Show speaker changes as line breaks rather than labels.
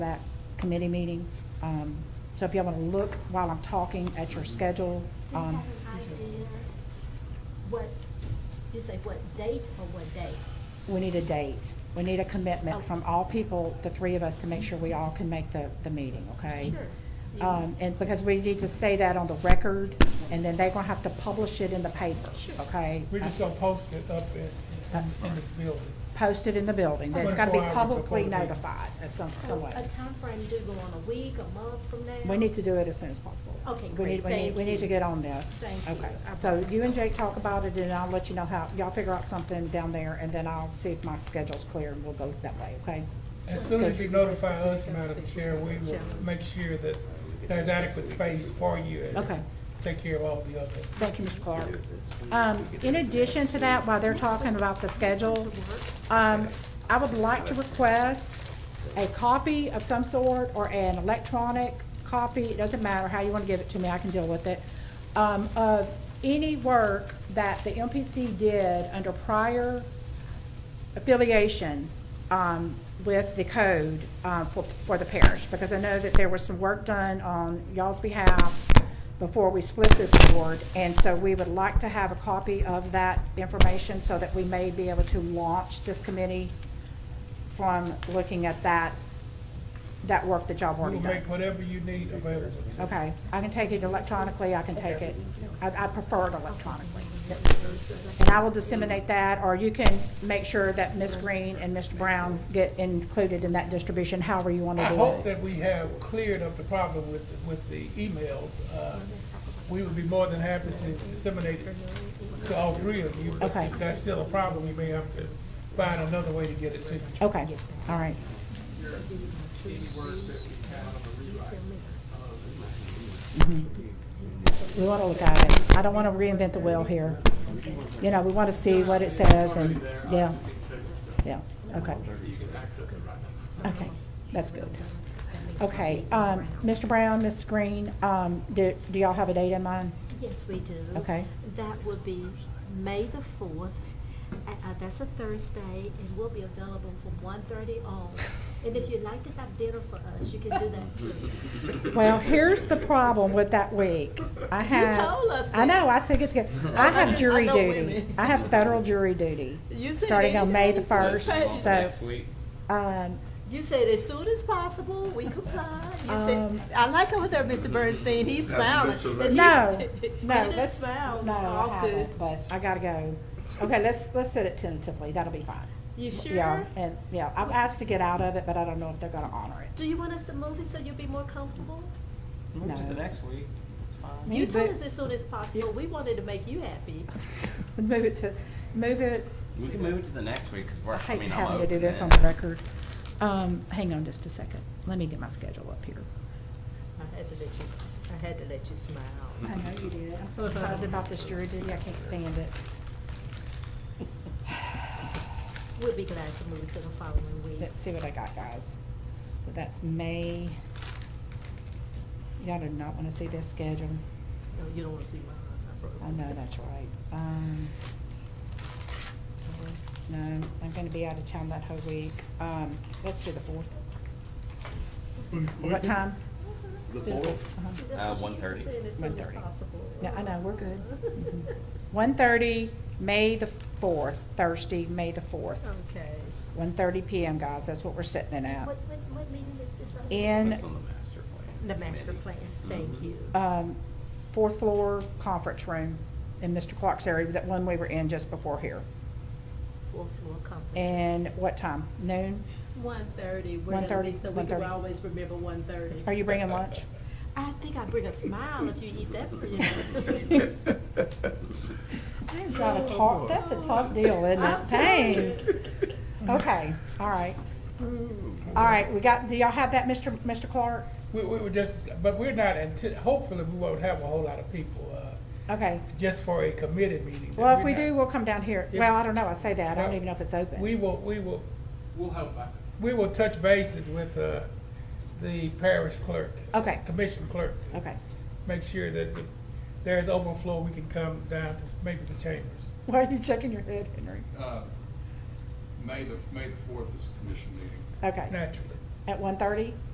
that committee meeting. Um, So if y'all want to look while I'm talking at your schedule,
Do you have
um,
an idea what, you say what date or what day?
we need a date. We need a commitment from all people, the three of us, to make sure we all can make the, the meeting, okay?
Sure.
Um, And because we need to say that on the record, and then they're going to have to publish it in the paper,
Sure.
okay? Uh,
We're just gonna post it up in, in- in this building.
Post it in the building. That's got to be
24 hours before
publicly
the meeting.
notified of some,
So
some way.
a timeframe, do you go on a week, a month from now?
We need to do it as soon as possible.
Okay,
We
great.
need- We need,
Thank
we need to
you.
get on this.
Thank you.
Okay, so you and Jake talk about it, and I'll let you know how, y'all figure out something down there, and then I'll see if my schedule's clear, and we'll go that way, okay?
As soon as you notify us, Madam Chair, we will make sure that there's adequate space for you. and
Okay.
Take care of all the other.
Thank you, Mr. Clark. Um, in addition to that, while they're talking about the schedule, um, I would like to request a copy of some sort or an electronic copy, it doesn't matter how you want to give it to me, I can deal with it, um, of any work that the MPC did under prior affiliations um, with the code uh, for for the parish, because I know that there was some work done on y'all's behalf before we split this board, and so we would like to have a copy of that information so that we may be able to launch this committee from looking at that, that work that y'all have
We'll
already done.
make whatever you need available. to us.
Okay, I can take it electronically, I can take it, I, I prefer it electronically. And I will disseminate that, or you can make sure that Ms. Green and Mr. Brown get included in that distribution, however you want
I
to
hope
do it.
that we have cleared up the problem with, with the emails. Uh, We would be more than happy to disseminate it to all three of you. but
Okay.
If that's still a problem, we may have to find another way to get it to you.
Okay, all right, Mm-hmm. we want to look at it, I don't want to reinvent the wheel here. You know, we want to see what it says and, yeah, yeah, okay. Okay, that's good. Okay, um, Mr. Brown, Ms. Green, um, do, do y'all have a date in mind?
Yes, we do.
Okay.
That would be May the fourth, uh, uh, that's a Thursday, and we'll be available from 1:30 on. And if you'd like to have dinner for us, you can do that too.
Well, here's the problem with that week. I have.
told us
I know, I said get together. I have jury
know
duty.
women.
I have federal jury duty,
You said
starting on May the
anything, so
first,
it's fine.
so,
Next week.
um,
You said as soon as possible, we comply. You
Um,
said, I like over there, Mr. Bernstein, he's smiling.
That's a
He-
selection.
no,
he
no,
didn't
let's,
smile
no, I
often.
haven't, but I gotta go. Okay, let's, let's set it tentatively, that'll be fine.
You
Yeah,
sure?
and, yeah, I've asked to get out of it, but I don't know if they're gonna honor it.
Do you want us to move it so you'll be more comfortable?
Move to
No.
the next week. It's fine.
You
Move
told
it-
us as soon as possible. We wanted to make you happy.
Move it to, move it.
We can move it to the next week because we're,
I
I
hate
mean, I'm
having to do
open
this on
then.
the record. Um, hang on just a second. Let me get my schedule up here.
I had to let you, I had to let you smile.
I know you did. I'm so excited about this jury duty. I can't stand it.
We'll be glad to move it to the following week.
Let's see what I got, guys. So that's May. Y'all do not want to see this schedule.
No, you don't want to see mine. broke
I
it.
know, that's right. Um, no, I'm going to be out of town that whole week. Um, let's do the fourth. What
Mm-hmm.
time?
The
Do
board?
uh-huh.
See, that's
Uh,
what you keep
1:30.
saying, As soon as
1:30.
possible.
No, I know, we're good. Mhm. 1:30, May the 4th, Thursday, May the 4th.
Okay.
1:30 PM, guys, that's what we're sitting it at.
What, what, what meeting is this on?
In,
That's on the master plan.
The master
maybe.
plan, thank
Mhm.
you.
um, fourth floor conference room in Mr. Clark's area, that one we were in just before here.
Fourth floor conference. room.
And what time? Noon?
One thirty, we're gonna
1:30,
be, so we can
1:30.
always remember one thirty.
Are you bringing lunch?
I think I bring a smile if you eat that for you.
I've got a tough, that's a tough deal, isn't
I'm
it?
telling
Dang.
you.
Okay, all right. All right, we got, do y'all have that, Mr. Mr. Clark?
We, we were just, but we're not, anti- hopefully, we won't have a whole lot of people, uh,
Okay.
just for a committee meeting.
Well, if
We're
we
not-
do, we'll come down here.
Yeah.
Well, I don't know, I say that, I don't
Well,
even know if it's open.
We will, we will,
We'll help out.
we will touch bases with, uh, the parish clerk.
Okay.
Commission clerk. to
Okay.
Make sure that if there's overflow, we can come down to maybe the chambers.
Why are you shaking your head, Henry?
Uh, May the, May the fourth is the commission meeting.
Okay,
Naturally.
at one thirty?